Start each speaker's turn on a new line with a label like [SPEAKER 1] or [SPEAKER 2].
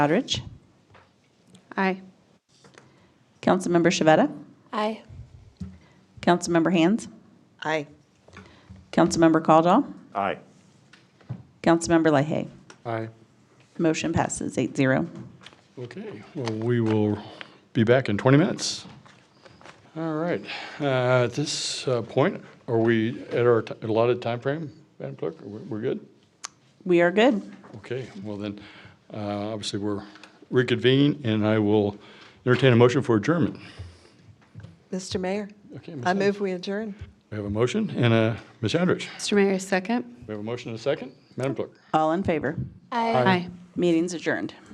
[SPEAKER 1] Godrich.
[SPEAKER 2] Aye.
[SPEAKER 1] Councilmember Shavetta.
[SPEAKER 2] Aye.
[SPEAKER 1] Councilmember Hands.
[SPEAKER 3] Aye.
[SPEAKER 1] Councilmember Caldwell.
[SPEAKER 4] Aye.
[SPEAKER 1] Councilmember Lahey.
[SPEAKER 5] Aye.
[SPEAKER 1] Motion passes eight zero.
[SPEAKER 5] Okay, well, we will be back in 20 minutes. All right, uh, at this uh, point, are we at our ti- allotted time frame, Madam Clerk? Are we- We're good?
[SPEAKER 1] We are good.
[SPEAKER 5] Okay, well then, uh, obviously, we're reconvened, and I will entertain a motion for adjournment.
[SPEAKER 3] Mr. Mayor,
[SPEAKER 5] Okay, Ms.
[SPEAKER 3] I
[SPEAKER 5] Hand-
[SPEAKER 3] move we adjourn.
[SPEAKER 5] We have a motion, and uh, Ms. Andrich,
[SPEAKER 2] Mr. Mayor, second?
[SPEAKER 5] we have a motion and a second. Madam Clerk?
[SPEAKER 1] All in favor.
[SPEAKER 2] Aye.
[SPEAKER 1] Meeting's adjourned.